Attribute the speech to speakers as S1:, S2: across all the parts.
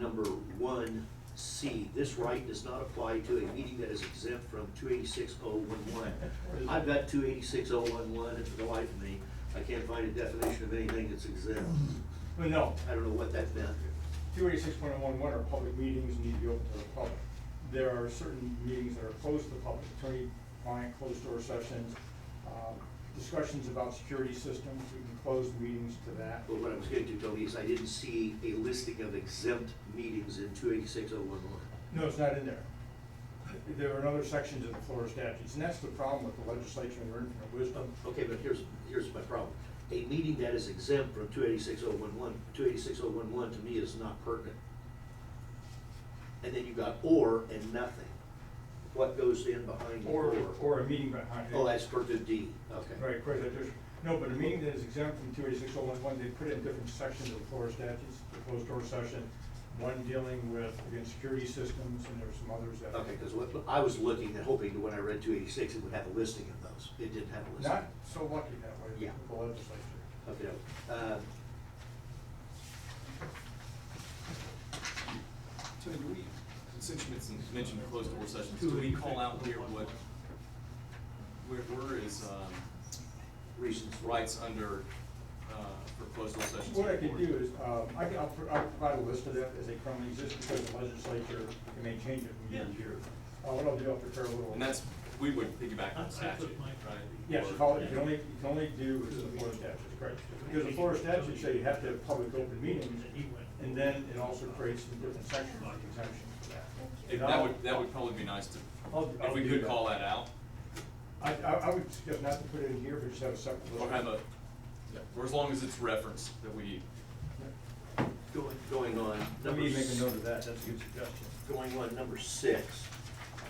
S1: number one C, this right does not apply to a meeting that is exempt from two eighty-six oh one one. I've got two eighty-six oh one one, and for the life of me, I can't find a definition of anything that's exempt.
S2: But no,
S1: I don't know what that meant.
S2: two eighty-six point oh one one are public meetings, need to be open to the public. There are certain meetings that are closed to the public, attorney-client closed door sessions, um, discussions about security systems, we can close the meetings to that.
S1: But what I was getting to, Tony, is I didn't see a listing of exempt meetings in two eighty-six oh one one.
S2: No, it's not in there. There are other sections of the Florida statutes, and that's the problem with the legislature and their infinite wisdom.
S1: Um, Okay, but here's, here's my problem. A meeting that is exempt from 286.011, 286.011 to me is not pertinent. And then you got or and nothing. What goes in behind the
S2: Or,
S1: or?
S2: or a meeting behind it.
S1: Oh, that's per the D, okay.
S2: Right, of course, I just, no, but a meeting that is exempt from two eighty-six oh one one, they put in different sections of the Florida statutes, the closed door session, one dealing with, again, security systems, and there's some others that.
S1: Okay, because what, I was looking and hoping that when I read two eighty-six, it would have a listing of those. It didn't have a listing.
S2: Not so lucky that way
S1: Yeah.
S2: with the legislature.
S1: Okay, uh,
S3: Tony, do we, since you mentioned, mentioned closed door sessions, do we call out here what, where, where is, um,
S1: reasons.
S3: rights under, uh, for closed door sessions?
S2: What I could do is, um, I can, I'll, pr- I'll provide a list of that as they currently exist, because the legislature may change it from year to year. Uh, what I'll do, I'll prepare a little.
S3: And that's, we would piggyback on
S4: That's- that's
S3: statute,
S4: what
S3: right?
S4: my-
S2: Yes, you follow, you can only, you can only do is the Florida statutes, correct? Because the Florida statutes say you have to have public open meetings, and then it also creates some different sections of exemption for that.
S3: If, that would, that would probably be nice to,
S2: I'll- I'll
S3: if we
S2: do
S3: could
S2: that.
S3: call that out,
S2: I, I, I would suggest not to put it in here, but just have a separate list.
S3: or have a, or as long as it's referenced, that we,
S1: Going, going on.
S2: Let
S1: number
S2: me make a
S1: s-
S2: note of that, that's a good suggestion.
S1: Going on number six,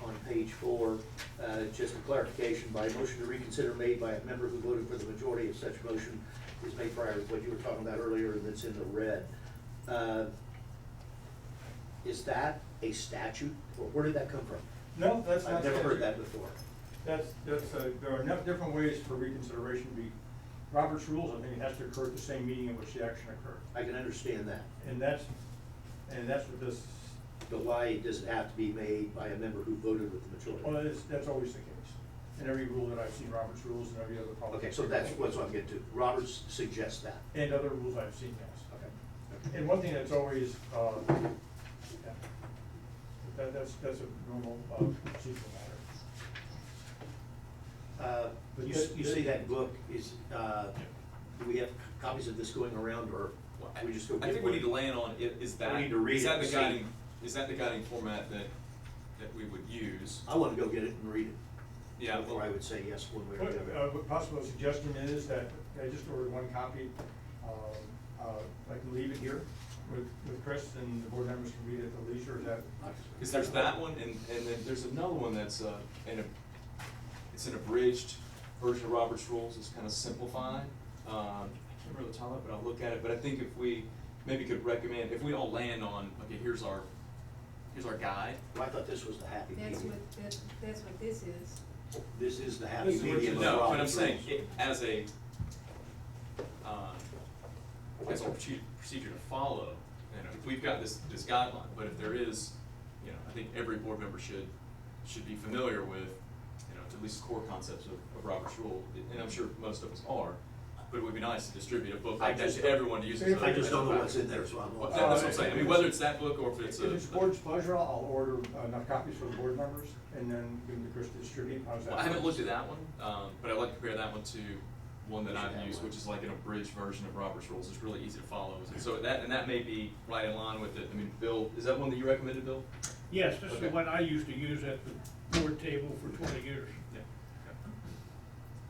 S1: on page four, uh, just a clarification, by motion to reconsider made by a member who voted for the majority of such motion is made prior to what you were talking about earlier, and that's in the red. Uh, Is that a statute, or where did that come from?
S2: No, that's not.
S1: I've never heard
S2: statute.
S1: that before.
S2: That's, that's, uh, there are enough different ways for reconsideration to be, Robert's rules, I think it has to occur at the same meeting in which the action occurred.
S1: I can understand that,
S2: And that's, and that's what this,
S1: but why does it have to be made by a member who voted with the majority?
S2: well, that's, that's always the case. In every rule that I've seen, Robert's rules and every other policy.
S1: Okay, so that's what's I'm getting to. Roberts suggests that.
S2: And other rules I've seen, yes.
S1: Okay.
S2: And one thing that's always, uh, yeah, that, that's, that's a normal, uh, procedural matter.
S1: Uh,
S2: But
S1: You,
S2: that-
S1: you say that book is, uh, do we have copies of this going around, or
S3: well,
S1: we just go
S3: I, I
S1: get
S3: think we need to
S1: one?
S3: land on, i- is that,
S1: We need to read
S3: is that
S1: it,
S3: the
S1: see.
S3: guiding, is that the guiding format that, that we would use?
S1: I wanna go get it and read it,
S3: Yeah, well-
S1: before I would say yes one way or the
S2: What, uh,
S1: other.
S2: what possible suggestion is that, I just ordered one copy, um, uh, I can leave it here with, with Chris and the board members can read it at the leisure, is that?
S3: Because there's that one, and, and then there's another one that's, uh, in a, it's an abridged version of Robert's Rules, it's kind of simplified. Um, I can't remember the title, but I'll look at it, but I think if we, maybe could recommend, if we all land on, okay, here's our, here's our guide.
S1: Well, I thought this was the happy
S5: That's
S1: medium.
S5: what, that's, that's what this is.
S1: This is the happy
S3: This is what you-
S1: medium of
S3: No, but I'm
S1: Robert's
S3: saying,
S1: rules.
S3: it, as a, um, as a proce- procedure to follow, you know, if we've got this, this guideline, but if there is, you know, I think every board member should, should be familiar with, you know, at least core concepts of, of Robert's Rule, and I'm sure most of us are, but it would be nice to distribute a book
S1: I
S3: like that
S1: just-
S3: to everyone to use. as a-
S1: I just don't know
S3: as a
S1: what's in there, so I'm.
S3: Well, that- that's what I'm saying, I mean, whether it's that book or if it's a.
S2: If it's board's pleasure, I'll order enough copies for the board members and then give them to Chris to distribute, how's that?
S3: Well, I haven't looked at that one, um, but I'd like to compare that one to one that I've used, which is like an abridged version of Robert's Rules, it's really easy to follow. And So that, and that may be right in line with it, I mean, Bill, is that one that you recommended, Bill?
S4: Yes, this
S3: Okay.
S4: is what I used to use at the board table for twenty years.
S3: Yeah.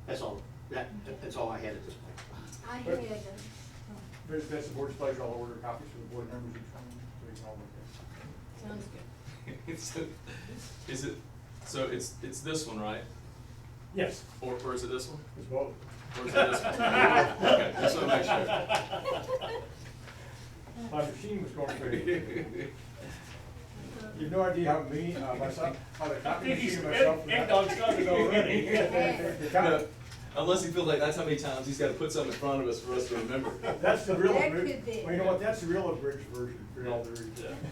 S1: That's all, that, that's all I had at this point.
S5: I had,
S2: But-
S5: uh,
S2: But if that's the board's pleasure, I'll order copies for the board members each one, so you can all look
S5: sounds good.
S3: It's, is it, so it's, it's this one, right?
S2: at it. Yes,
S3: Or, or is it this one?
S2: it's both.
S3: Or is it this one? Okay, just want to
S2: My machine was going
S3: make
S2: crazy.
S3: sure.
S2: You have no idea how me, uh, myself, how the copy
S4: Think he's-
S2: machine and myself.
S4: Ed- Ed dog started already.
S2: The copy-
S3: Unless he feels like that's how many times he's gotta put something in front of us for us to remember.
S2: That's the real,
S5: That
S2: abri-
S5: could be.
S2: well, you know what, that's the real abridged version, for all the
S3: Yeah.
S2: reasons.